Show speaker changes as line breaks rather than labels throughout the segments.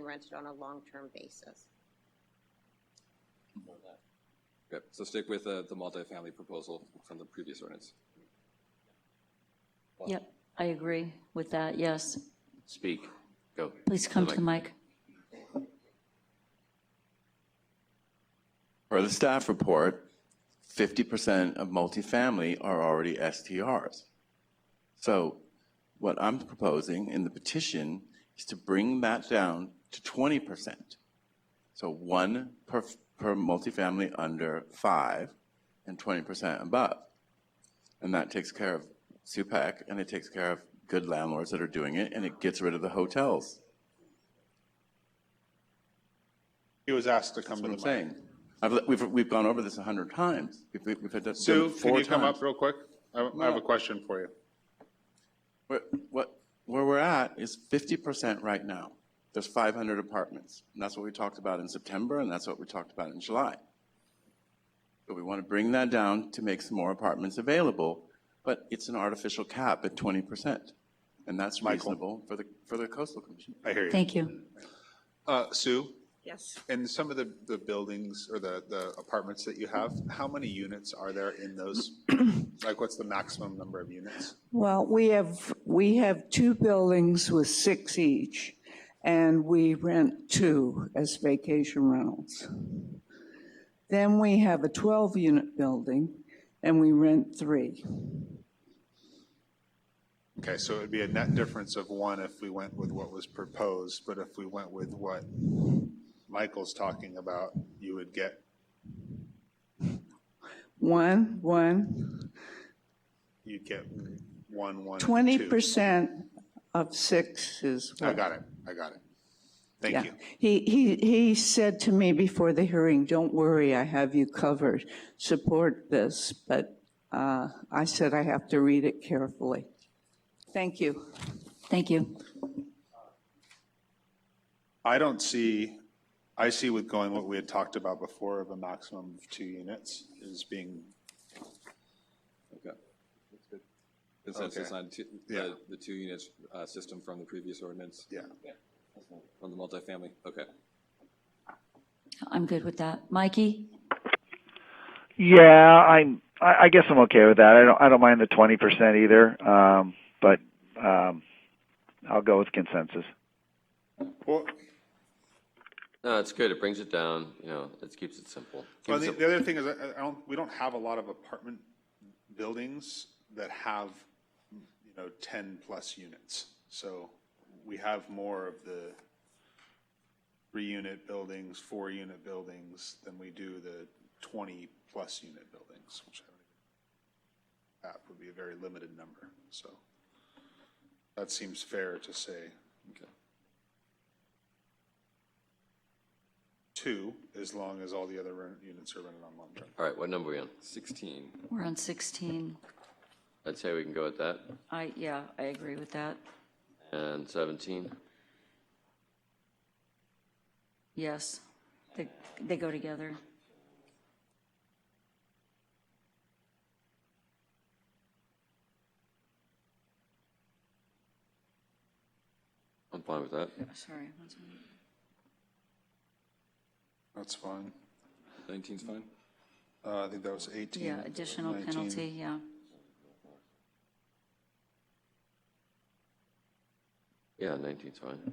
rented on a long-term basis.
Okay, so stick with uh, the, the multifamily proposal from the previous ordinance.
Yep, I agree with that, yes.
Speak, go.
Please come to the mic.
Per the staff report, fifty percent of multifamily are already STRs. So what I'm proposing in the petition is to bring that down to twenty percent. So one per, per multifamily under five and twenty percent above. And that takes care of SUPEC and it takes care of good landlords that are doing it and it gets rid of the hotels.
He was asked to
That's
come to
what
the
I'm
mic.
saying. I've, we've, we've gone over this a hundred times. We've, we've had that done
Sue, can
four
you come
times.
up real quick? I I have a question for you.
Where- What, where we're at is fifty percent right now. There's five hundred apartments. And that's what we talked about in September, and that's what we talked about in July. But we want to bring that down to make some more apartments available, but it's an artificial cap at twenty percent. And that's reasonable for the, for the coastal commission.
I hear you.
Thank you.
Uh, Sue,
Yes.
in some of the, the buildings or the, the apartments that you have, how many units are there in those? Like, what's the maximum number of units?
Well, we have, we have two buildings with six each, and we rent two as vacation rentals. Then we have a 12-unit building, and we rent three.
Okay, so it would be a net difference of one if we went with what was proposed, but if we went with what Michael's talking about, you would get,
One, one,
you'd get one, one, and two.
20% of six is what.
I got it, I got it. Thank
Yeah.
you.
He, he, he said to me before the hearing, don't worry, I have you covered, support this, but uh, I said I have to read it carefully. Thank you.
Thank you.
I don't see, I see with going what we had talked about before of a maximum of two units is being,
Okay. Consensus
Okay.
on two,
Yeah.
the, the two units, uh, system from the previous ordinance,
yeah.
from the multifamily, okay.
I'm good with that. Mikey?
Yeah, I'm. I, I guess I'm okay with that. I don't. I don't mind the twenty percent either. Um, but um, I'll go with consensus.
Well,
No, it's good, it brings it down, you know, it keeps it simple.
well,
Keeps
the,
it-
the other thing is, I, I don't, we don't have a lot of apartment buildings that have, you know, ten-plus units. So we have more of the three-unit buildings, four-unit buildings than we do the twenty-plus unit buildings, which I don't even, that would be a very limited number, so. That seems fair to say.
Okay.
Two, as long as all the other rent units are rented on long-term.
All right, what number are we on?
Sixteen,
We're on 16.
I'd say we can go with that.
I, yeah, I agree with that.
And 17,
Yes, they, they go together.
I'm fine with that.
Sorry. one second.
That's fine.
nineteen's fine?
Uh, I think that was 18.
Yeah, additional
19.
penalty, yeah.
Yeah, 19's fine.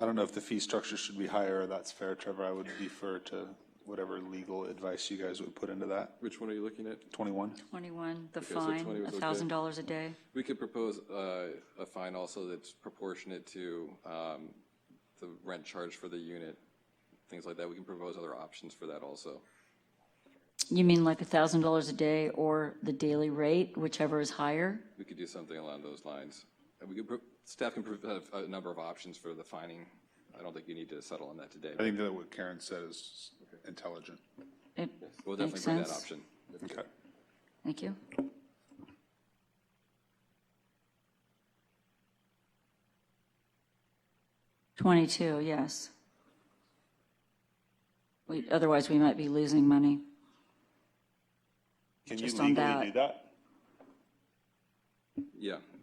I don't know if the fee structure should be higher, or that's fair, Trevor. I would defer to whatever legal advice you guys would put into that.
Which one are you looking at?
21?
21, the
so
fine,
20 was okay.
$1,000 a day.
We could propose uh, a fine also that's proportionate to um, the rent charge for the unit, things like that. We can propose other options for that also.
You mean like $1,000 a day or the daily rate, whichever is higher?
We could do something along those lines. And we could, pro- staff can provide a number of options for the fining. I don't think you need to settle on that today.
I think that what Karen said is intelligent.
It
We'll definitely
makes
bring that
sense.
option.
Okay.
Thank you. Twenty-two, yes. We, otherwise, we might be losing money.
Can you
Just on
legally
that.
do that?
Yeah,